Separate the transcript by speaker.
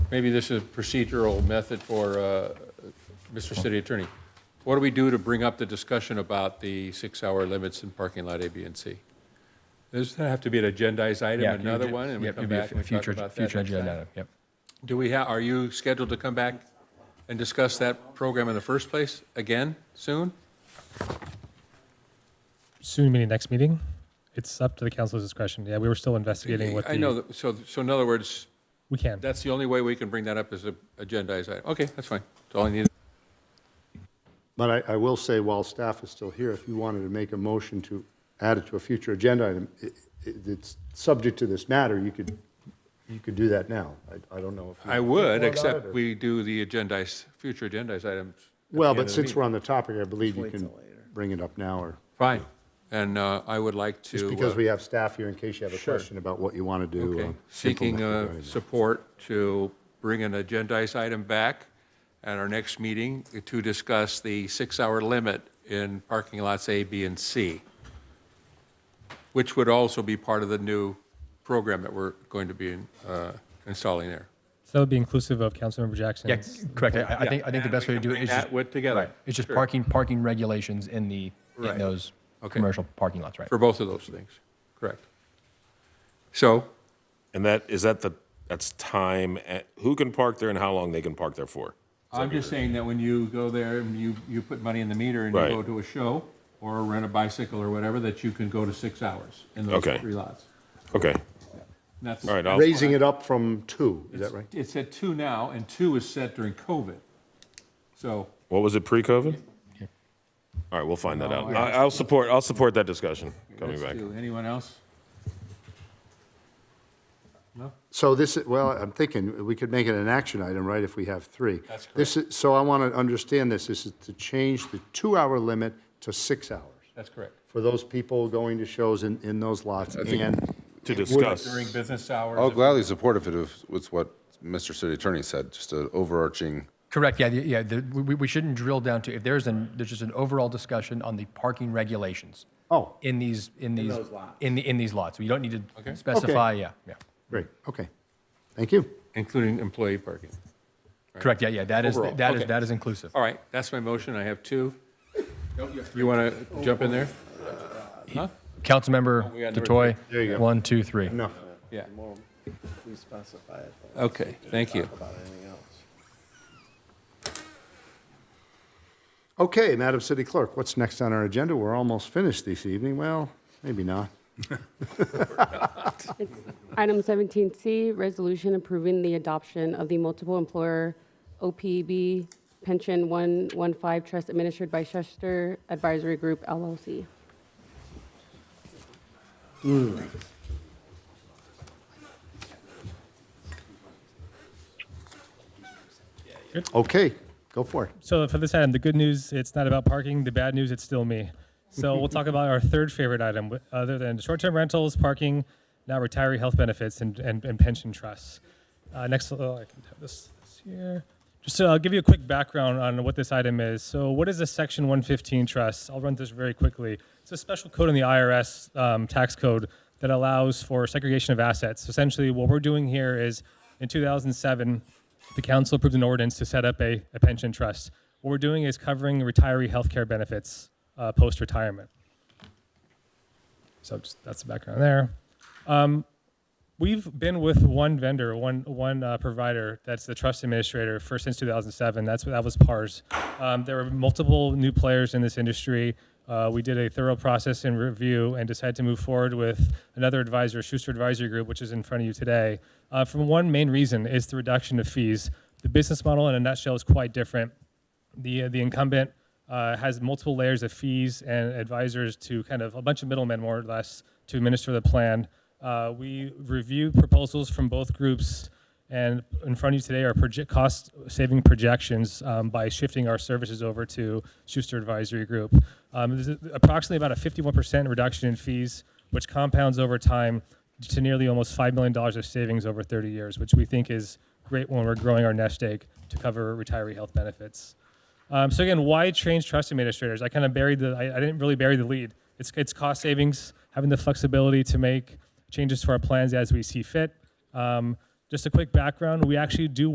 Speaker 1: maybe this is a procedural method for uh, Mr. City Attorney. What do we do to bring up the discussion about the six-hour limits in parking lot A, B, and C? Does that have to be an agendized
Speaker 2: Yeah,
Speaker 1: item,
Speaker 2: you
Speaker 1: another
Speaker 2: did-
Speaker 1: one, and we
Speaker 2: yep,
Speaker 1: come
Speaker 2: it'd be a
Speaker 1: back and talk
Speaker 2: future-
Speaker 1: about that?
Speaker 2: Future
Speaker 1: next time?
Speaker 2: agenda, item, yep.
Speaker 1: Do we have, are you scheduled to come back and discuss that program in the first place again soon?
Speaker 3: soon meaning next meeting. It's up to the council's discretion. Yeah, we were still investigating what the.
Speaker 1: I know, that- so, so in other words,
Speaker 3: We can.
Speaker 1: that's the only way we can bring that up is a agendized item. Okay, that's fine. That's all I needed.
Speaker 4: But I, I will say, while staff is still here, if you wanted to make a motion to add it to a future agenda item, it, it- it's subject to this matter, you could, you could do that now. I, I don't know if. you-
Speaker 1: I would,
Speaker 4: Or
Speaker 1: except
Speaker 4: not, or-
Speaker 1: we do the agendized, future agendized items. at
Speaker 4: Well,
Speaker 1: the end
Speaker 4: but
Speaker 1: of the
Speaker 4: since
Speaker 1: meeting.
Speaker 4: we're on the topic, I believe you can bring it up now, or,
Speaker 1: Fine, and uh, I would like to.
Speaker 4: just because
Speaker 1: uh,
Speaker 4: we have staff here in case you have a
Speaker 1: Sure.
Speaker 4: question about what you want to do.
Speaker 1: Okay,
Speaker 4: uh,
Speaker 1: seeking
Speaker 4: implement
Speaker 1: uh,
Speaker 4: regarding that.
Speaker 1: support to bring an agendized item back at our next meeting to discuss the six-hour limit in parking lots A, B, and C, which would also be part of the new program that we're going to be uh, installing there.
Speaker 3: So that would be inclusive of Councilmember Jackson.
Speaker 2: Yeah, c- correct. I- I think, I think the best way to do it is just,
Speaker 1: That with together.
Speaker 2: it's just
Speaker 1: Sure.
Speaker 2: parking, parking regulations in the, in
Speaker 1: Right.
Speaker 2: those
Speaker 1: Okay.
Speaker 2: commercial parking lots, right?
Speaker 1: For both of those things, correct. So,
Speaker 5: And that, is that the, that's time, at- who can park there and how long they can park there for?
Speaker 1: I'm just saying that when you go there and you, you put money in the meter and you
Speaker 5: Right.
Speaker 1: go to a show or rent a bicycle or whatever, that you can go to six hours in those
Speaker 5: Okay.
Speaker 1: three lots.
Speaker 5: Okay,
Speaker 1: And That's,
Speaker 5: all right, I'll,
Speaker 4: Raising it up from two, is that right?
Speaker 1: it's at two now, and two is set during COVID. So,
Speaker 5: what was it, pre-COVID? All right, we'll find that out. I, I'll support, I'll support that discussion coming
Speaker 1: let's
Speaker 5: back.
Speaker 1: do- anyone else?
Speaker 4: So this, is well, I'm thinking, we could make it an action item, right, if we have three?
Speaker 1: That's
Speaker 4: This is, so I want to understand this, this is to change the two-hour limit to six hours
Speaker 1: That's correct.
Speaker 4: for those people going to shows in, in those lots, and
Speaker 5: To discuss,
Speaker 1: During business hours.
Speaker 5: Oh,
Speaker 6: I'll gladly support if it was- was what Mr. City Attorney said, just an overarching,
Speaker 2: Correct, yeah, the- yeah, the- we, we- we shouldn't drill down to, if there's an, there's just an overall discussion on the parking regulations.
Speaker 4: Oh.
Speaker 2: In these, in these. In the, in these lots, you don't need to specify, yeah, yeah.
Speaker 4: great, okay, thank you.
Speaker 1: Including employee parking.
Speaker 2: Correct, yeah, yeah, that is,
Speaker 1: Overall,
Speaker 2: that
Speaker 1: okay.
Speaker 2: is, that is inclusive.
Speaker 1: All right, that's my motion, I have two. You want to jump in there?
Speaker 2: Councilmember
Speaker 1: we got number
Speaker 2: Detoy,
Speaker 4: There you go.
Speaker 2: one, two, three.
Speaker 4: Enough.
Speaker 1: Yeah,
Speaker 7: Well, we specify it. but
Speaker 1: okay, thank you.
Speaker 7: Talk about anything else.
Speaker 4: Okay, Madam City Clerk, what's next on our agenda? We're almost finished this evening, well, maybe not.
Speaker 8: Item 17C, resolution approving the adoption of the multiple employer OPEB pension 115 trust administered by Chester Advisory Group LLC.
Speaker 4: Okay, go for it.
Speaker 3: So for this item, the good news, it's not about parking. The bad news, it's still me. So we'll talk about our third favorite item, wh- other than short-term rentals, parking, now retiree health benefits, and, and, and pension trusts. Uh, next, oh, I can have this, this here. Just so I'll give you a quick background on what this item is. So what is a Section 115 trust? I'll run this very quickly. It's a special code in the IRS um, tax code that allows for segregation of assets. Essentially, what we're doing here is in 2007, the council approved an ordinance to set up a, a pension trust. What we're doing is covering retiree health care benefits uh, post retirement. So just, that's the background there. Um, we've been with one vendor, one one uh, provider that's the trust administrator for since 2007. That's that was PARS. Um, there were multiple new players in this industry. Uh, we did a thorough process and review and decided to move forward with another advisor, Schuster Advisory Group, which is in front of you today. Uh, from one main reason is the reduction of fees. The business model, in a nutshell, is quite different the the incumbent uh, has multiple layers of fees and advisors to kind of a bunch of middlemen, more or less, to administer the plan. Uh, we review proposals from both groups, and in front of you today are proje- cost saving projections um, by shifting our services over to Schuster Advisory Group. Um, there's a- approximately about a 51% reduction in fees, which compounds over time to nearly almost $5 million of savings over 30 years, which we think is great when we're growing our nest egg to cover retiree health benefits. Um, so again, why change trust administrators? I kind of buried the. I, I didn't really bury the lead. It's it's cost savings, having the flexibility to make changes to our plans as we see fit. Um, just a quick background: we actually do